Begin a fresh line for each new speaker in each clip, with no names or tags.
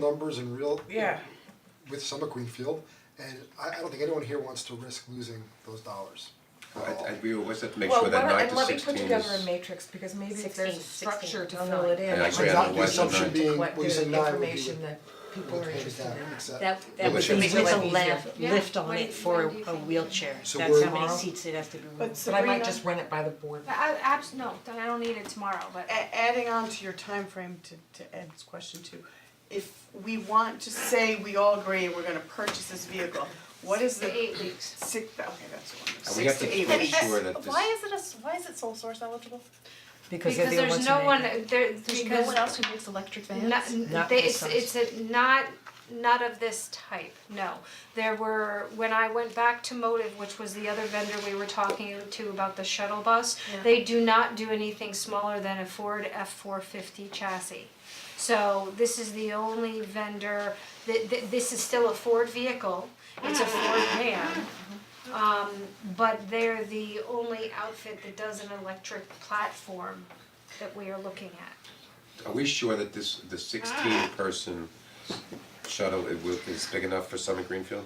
numbers and real
Yeah,
with Summer Greenfield, and I, I don't think anyone here wants to risk losing those dollars. at all.
I, I, we always have to make
Well,
sure that
why don't-
nine
And
to
let me put
sixteen
together a
is,
matrix, because maybe if there's a
16,
structure to
16,
fill it in,
yeah,
it
I
might
agree,
Exactly,
I
help
know
the
why
us
it's a
assumption
nine.
being
collect the
losing nine would be
information that people
with
are interested
handicap,
in.
except-
That
Yeah,
that
but
would
you
be
make
with a
it
lav,
easier.
lift
Yeah,
on
when-
it for
when
a
do you
a
think-
wheelchair,
So
that's
we're-
how many
Tomorrow?
seats it has to be removed.
but
But I might
Sabrina,
just run it by the
Oh,
board.
I, I, abs- no, I don't need it tomorrow, but
a- adding on to your time frame to to Ed's question too, if we want to say we all agree we're gonna purchase this vehicle, what is
six to
the
eight weeks.
six, okay, that's one,
And we have
six
to
to eight
make
weeks.
sure that this,
Why is it a, s- why is it sole source eligible?
Because they're the only
Because there's
ones
no
who
one,
make it.
there,
There's no one
because
else who makes electric vans.
not,
Not
they,
this
it's, it's a, not, not of this type, no. There were, when I went back to Motive, which was the other vendor we were talking to about the shuttle bus,
Yeah.
they do not do anything smaller than a Ford F four fifty chassis. So this is the only vendor, th- th- this is still a Ford vehicle, it's a Ford van. Um, but they're the only outfit that does an electric platform that we are looking at.
are we sure that this, the sixteen
Ah.
person shuttle, it will, is big enough for Summit Greenfield?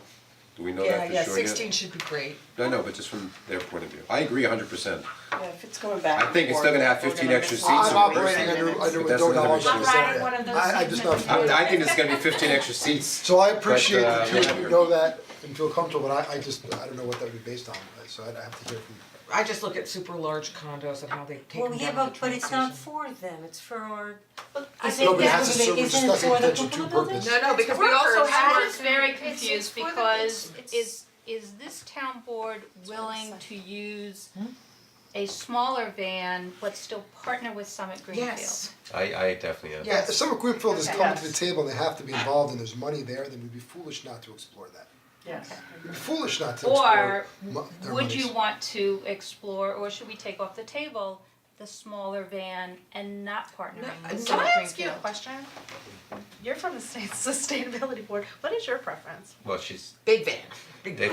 Do we know that for sure
Yeah, yeah,
yet?
sixteen should be great.
No, no, but just from their point of view, I agree hundred percent,
Yeah, if it's going back
I think it's still gonna have
and forth,
15
we're
extra
gonna miss-
I'm
seats so
operating
we're-
under, under
But that's
no
another
knowledge
issue.
of
I'm
this
riding
area.
one of those
I, I just
seats
know,
that
I, I think it's gonna be fifteen extra seats,
so I appreciate
But, uh,
that you- you
we're-
know that and feel comfortable, but I, I just, I don't know what that would be based on, so I'd have to hear from
I just look at super large condos and how they take them down
Well,
to
yeah,
the
but but
train
it's not
station.
for them, it's for our,
I
Is
think
No, but it
that-
has to serve, we're
isn't
discussing
for the
potential two
people building?
purposes.
No, no, because we also
I'm
have,
just very
It's- it's
confused
for the-
because
it's-
is is this town board willing to use a smaller van but still partner with Summit Greenfield?
Yes.
I, I definitely am.
Yeah, if Summer Greenfield is coming to the
Yes.
table and they have to be involved and there's money there, then we'd be foolish not to explore that.
Yes.
We'd be foolish not to explore
Or
mo- their
would you
monies.
want to explore, or should we take off the table the smaller van and not partnering with
Can
Summit
I ask you a
Greenfield?
question? You're from the state sustainability board, what is your preference?
Well, she's,
big van.
they told,
I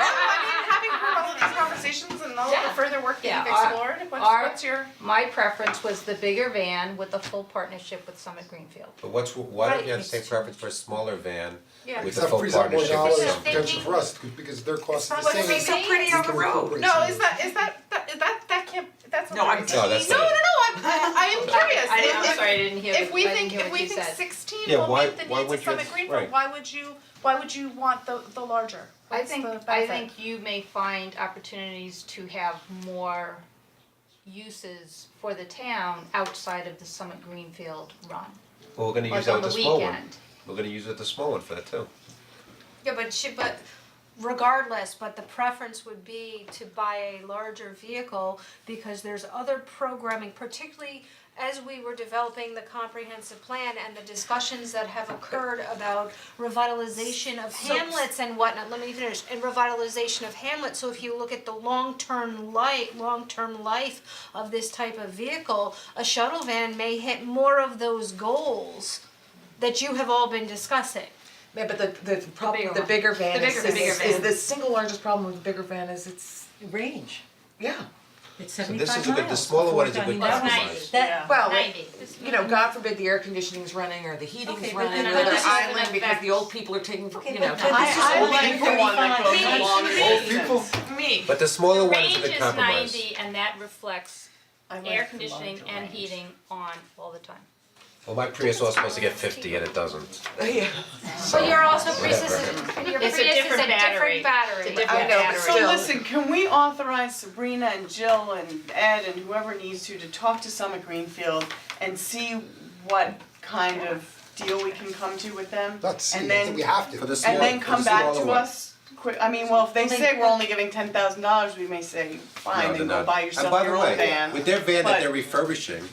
mean, having heard all of these conversations and all of the
Yeah.
further work
Yeah,
that you've
our-
explored, what's
our-
what's your?
My preference was the bigger van with the full partnership with Summit Greenfield.
but what's, why don't you have the
Right,
same
it's-
preference for a smaller van
Yeah.
with
Because
a
that
full
frees up more
partnership
dollars
with
of
some?
potential for us, c- because their cost is the
It's
same.
not
as
so pretty
we can recuperate
No,
some
is
of
that, is that, that, is that, that can't, that's not.
No, I'm
No,
No, that's
no,
not
no,
it.
I'm, I am curious,
I didn't,
If-
I'm
if-
sorry, I didn't hear,
If
what-
we
I didn't
think,
hear
if
what
we
you
think
said.
sixteen
Yeah,
will
why-
meet the
why
needs
would
of
you
Summit
have-
Greenfield,
right.
why would you, why would you want the the larger?
I
What's
think,
the
I
benefit?
think you may find opportunities to have more uses for the town outside of the Summit Greenfield run,
Well, we're gonna use
like
that
on the
with
weekend.
the small one, we're gonna use it with the small one for that too.
Yeah, but she, but regardless, but the preference would be to buy a larger vehicle because there's other programming, particularly as we were developing the comprehensive plan and the discussions that have occurred about revitalization of hamlets and whatnot, let me finish, and revitalization of hamlets, so if you look at the long-term life, long-term life of this type of vehicle, a shuttle van may hit more of those goals that you have all been discussing.
Yeah, but the the problem,
bigger
with the
one.
bigger van
The
is
bigger- the
is
bigger
is
van.
the single largest problem with the bigger van is it's,
range,
yeah.
it's
So
seventy-five
this
miles.
is a good- the smaller one is a
Before
good
that, I mean, that was-
compromise.
That,
Well,
Ninety.
you know, God forbid the air conditioning's running or the heating's
Okay, but
running
then
or
I'm
the
just gonna
island because the old people are taking,
okay,
you know.
but but this is
I
only
like the one that goes
forty-five.
along with
it. People,
Me.
But the smaller one is a
Range
good
is
compromise.
ninety and that reflects
I like
air
the
conditioning
larger
and
range.
heating on all the time.
Well, my Prius was supposed to get fifty and it doesn't.
Yeah.
But you're also Prius
whatever.
is, your Prius
It's
is
a
a
different battery.
different battery.
It's a different
I know, but
battery.
still-
So listen, can we authorize Sabrina and Jill and Ed and whoever needs to to talk to Summit Greenfield and see what kind of deal we can come to with them?
Not see,
And
I
then
think we have to.
For the
And
smaller,
then
for the
come back
smaller
to
one.
us quick, I mean, well, if they say we're only giving ten thousand dollars, we may say,
No,
fine,
they're
then go
not.
buy yourself your own
And by the way,
van.
with their van that
but-
they're refurbishing,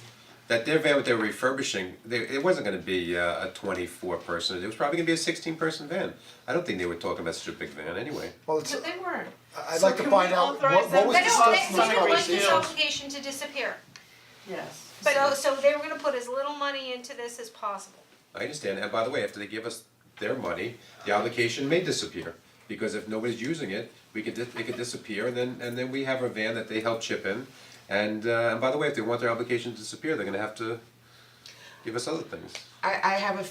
that their van that they're refurbishing, they, it wasn't gonna be uh, a twenty-four person, it was probably gonna be a sixteen person van. I don't think they were talking about such a big van anyway.
Well, it's,
But they weren't.
I- I'd like to
can
find
we
out what,
authorize
what
them
was
They
to
discussed
don't,
in
they,
the
they don't want this
conversation.
obligation to disappear.
Yes.
So, so they were gonna put as little money into this as possible.
I understand, and by the way, after they give us their money, the obligation may disappear. Because if nobody's using it, we could, dis- it could disappear, and then, and then we have a van that they help chip in. And, uh, and by the way, if they want their obligation to disappear, they're gonna have to give us other things.
I I have a